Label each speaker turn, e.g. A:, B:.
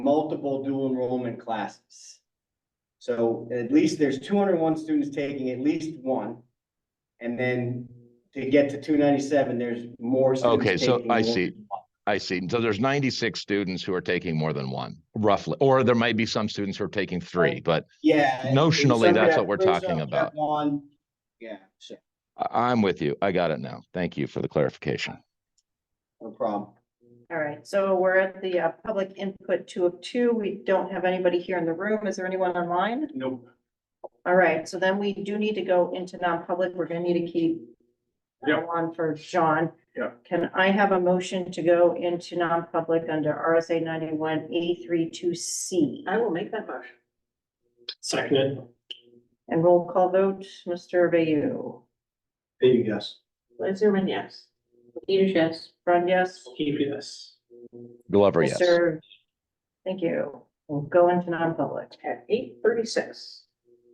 A: multiple dual enrollment classes. So at least there's two hundred and one students taking at least one. And then to get to two ninety-seven, there's more. students
B: Okay, so
A: taking
B: I
A: more.
B: see. I see. So there's ninety-six students who are taking more than one, roughly, or there might be some students who are taking three, but
A: Yeah. and
B: Notionally,
A: some
B: that's
A: have
B: what we're
A: three,
B: talking
A: some have
B: about.
A: One, yeah, sure,
B: I, I'm with you. I got it now. Thank you for the clarification.
A: no problem.
C: All right, so we're at the uh, public input two of two. We don't have anybody here in the room. Is there anyone online?
A: Nope.
C: All right, so then we do need to go into non-public. We're gonna need to keep uh,
A: Yeah.
C: on for John.
A: Yeah.
C: Can I have a motion to go into non-public under RSA ninety-one A three two C?
D: I will make that motion.
E: Seconded.
C: And roll call vote, Mr. Bayou.
E: Baby, yes.
D: Liz Zimmerman, yes. Peter, yes.
C: Friend, yes?
E: Keep yes.
B: Glover, yes.
C: Mr. Thank you. We'll go into non-public.
D: At eight thirty-six.